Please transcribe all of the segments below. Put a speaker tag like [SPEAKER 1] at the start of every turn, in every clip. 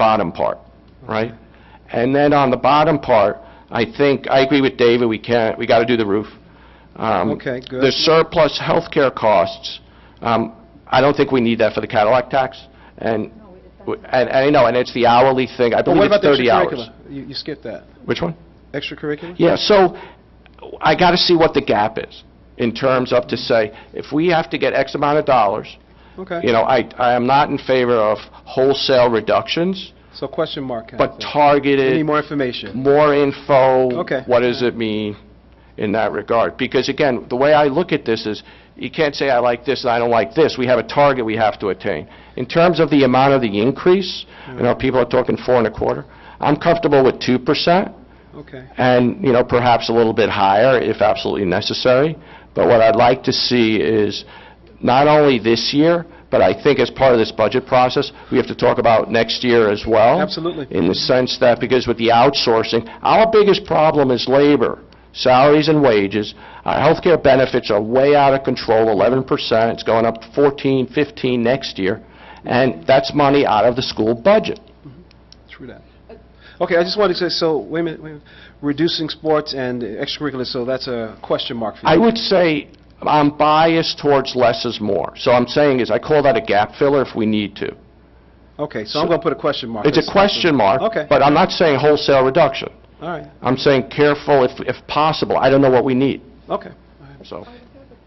[SPEAKER 1] bottom part, right? And then on the bottom part, I think, I agree with David, we can't, we got to do the roof. Um,
[SPEAKER 2] Okay, good.
[SPEAKER 1] The surplus healthcare costs, um, I don't think we need that for the Cadillac tax, and, and and I know, and it's the hourly thing, I
[SPEAKER 2] But
[SPEAKER 1] believe
[SPEAKER 2] what about
[SPEAKER 1] it's
[SPEAKER 2] the
[SPEAKER 1] 30 hours.
[SPEAKER 2] extracurricular? You you skipped that.
[SPEAKER 1] Which one?
[SPEAKER 2] Extracurricular?
[SPEAKER 1] Yeah, so I got to see what the gap is, in terms of to say, if we have to get X amount of dollars, you
[SPEAKER 2] Okay.
[SPEAKER 1] know, I, I am not in favor of wholesale reductions,
[SPEAKER 2] So question mark. kind of
[SPEAKER 1] but
[SPEAKER 2] thing.
[SPEAKER 1] targeted...
[SPEAKER 2] We Need more information.
[SPEAKER 1] more info.
[SPEAKER 2] Okay.
[SPEAKER 1] What does it mean in that regard? Because again, the way I look at this is, you can't say I like this and I don't like this. We have a target we have to attain. In terms of the amount of the increase, you know, people are talking four and a quarter. I'm comfortable with two percent
[SPEAKER 2] Okay.
[SPEAKER 1] and, you know, perhaps a little bit higher if absolutely necessary. But what I'd like to see is not only this year, but I think as part of this budget process, we have to talk about next year as well.
[SPEAKER 2] Absolutely.
[SPEAKER 1] In the sense that, because with the outsourcing, our biggest problem is labor, salaries and wages. Our healthcare benefits are way out of control, 11%. It's going up 14, 15 next year. And that's money out of the school budget.
[SPEAKER 2] True that. Okay, I just wanted to say, so, wait a minute, wait a minute. Reducing sports and extracurricular, so that's a question mark for
[SPEAKER 1] I
[SPEAKER 2] you.
[SPEAKER 1] would say I'm biased towards less is more. So I'm saying is, I call that a gap filler if we need to.
[SPEAKER 2] Okay, so I'm going to put a question mark.
[SPEAKER 1] It's a question mark.
[SPEAKER 2] Okay.
[SPEAKER 1] But I'm not saying wholesale reduction.
[SPEAKER 2] All right,
[SPEAKER 1] I'm saying careful if, if possible. I don't know what we need,
[SPEAKER 2] okay.
[SPEAKER 1] so.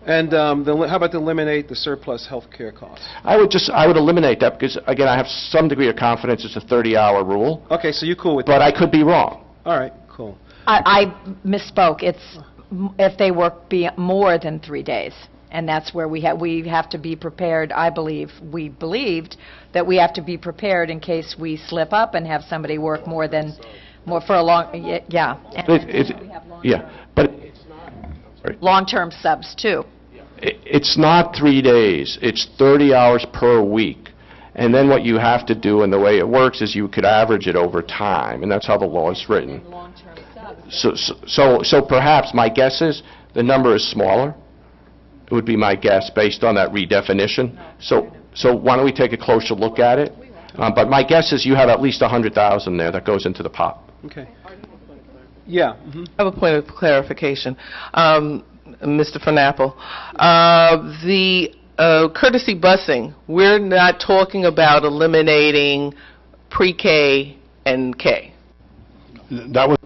[SPEAKER 2] And um, the- how about to eliminate the surplus healthcare costs?
[SPEAKER 1] I would just, I would eliminate that because, again, I have some degree of confidence it's a 30-hour rule,
[SPEAKER 2] Okay, so you're cool with that?
[SPEAKER 1] but I could be wrong.
[SPEAKER 2] All right, cool.
[SPEAKER 3] I I misspoke. It's m- if they work be more than three days. And that's where we have, we have to be prepared, I believe, we believed that we have to be prepared in case we slip up and have somebody work more than, more for a long, y- yeah. And
[SPEAKER 1] It- it- Yeah, but
[SPEAKER 3] Long-term subs, too.
[SPEAKER 1] i- it's not three days, it's 30 hours per week. And then what you have to do, and the way it works, is you could average it over time, and that's how the law is written.
[SPEAKER 3] Long-term subs.
[SPEAKER 1] So, so, so perhaps, my guess is, the number is smaller, It would be my guess, based on that redefinition. So, so why don't we take a closer look at it? Uh, But my guess is you have at least 100,000 there that goes into the pot.
[SPEAKER 2] Okay. Yeah, mhm.
[SPEAKER 4] I have a point of clarification. Um, Mr. Fernapple, uh, the uh, courtesy busing, we're not talking about eliminating pre-K and K.
[SPEAKER 1] That was...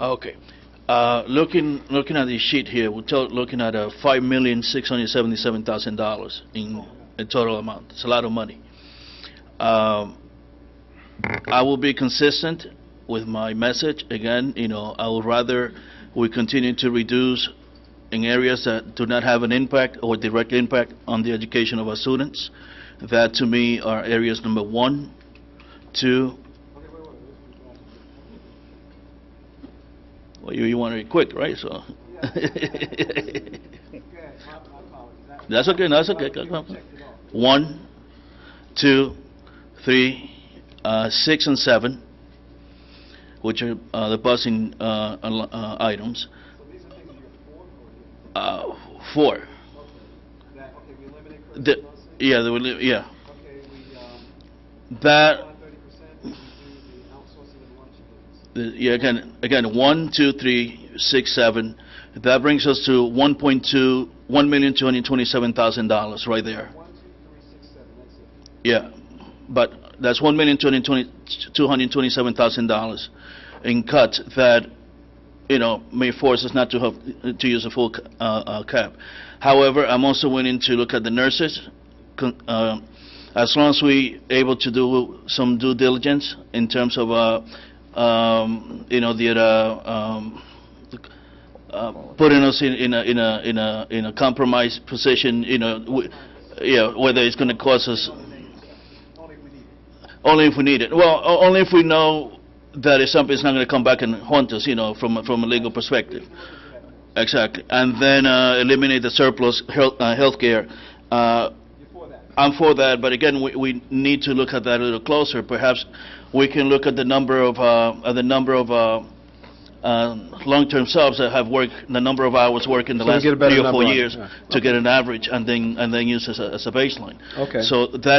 [SPEAKER 5] Okay. Uh, Looking, looking at the sheet here, we're tot- looking at uh, $5,677,000 in a total amount. It's a lot of money. Um, I will be consistent with my message. Again, you know, I would rather we continue to reduce in areas that do not have an impact or direct impact on the education of our students. That, to me, are areas number one, two... Well, you, you want it quick, right? So... That's okay, that's okay. One, two, three, uh, six, and seven, which are uh, the busing uh, al- uh, items. Uh, Four. The- Yeah, they were, li- yeah. That, the- yeah, again, again, one, two, three, six, seven. That brings us to 1.2, $1,227,000 right there. Yeah, but that's one million two hundred twenty, two hundred twenty-seven thousand dollars in cuts that, you know, may force us not to have, to use a full, uh, uh, cap. However, I'm also willing to look at the nurses, con- uh, as long as we able to do some due diligence in terms of, uh, um, you know, the, uh, um, uh, putting us in, in a, in a, in a, in a compromised position, you know, w- yeah, whether it's gonna cause us, only if we need it. Well, o- only if we know that if something's not going to come back and haunt us, you know, from, a- from a legal perspective. Exactly. And then uh, eliminate the surplus health, uh, healthcare. Uh, I'm for that, but again, we, we need to look at that a little closer. Perhaps we can look at the number of, uh, at the number of, uh, um, long-term subs that have worked, the number of hours worked in the
[SPEAKER 2] So we
[SPEAKER 5] last
[SPEAKER 2] get a better
[SPEAKER 5] three or
[SPEAKER 2] number
[SPEAKER 5] four
[SPEAKER 2] on it,
[SPEAKER 5] years
[SPEAKER 2] yeah.
[SPEAKER 5] to get an average and then, and then use as a, as a baseline.
[SPEAKER 2] Okay.
[SPEAKER 5] So that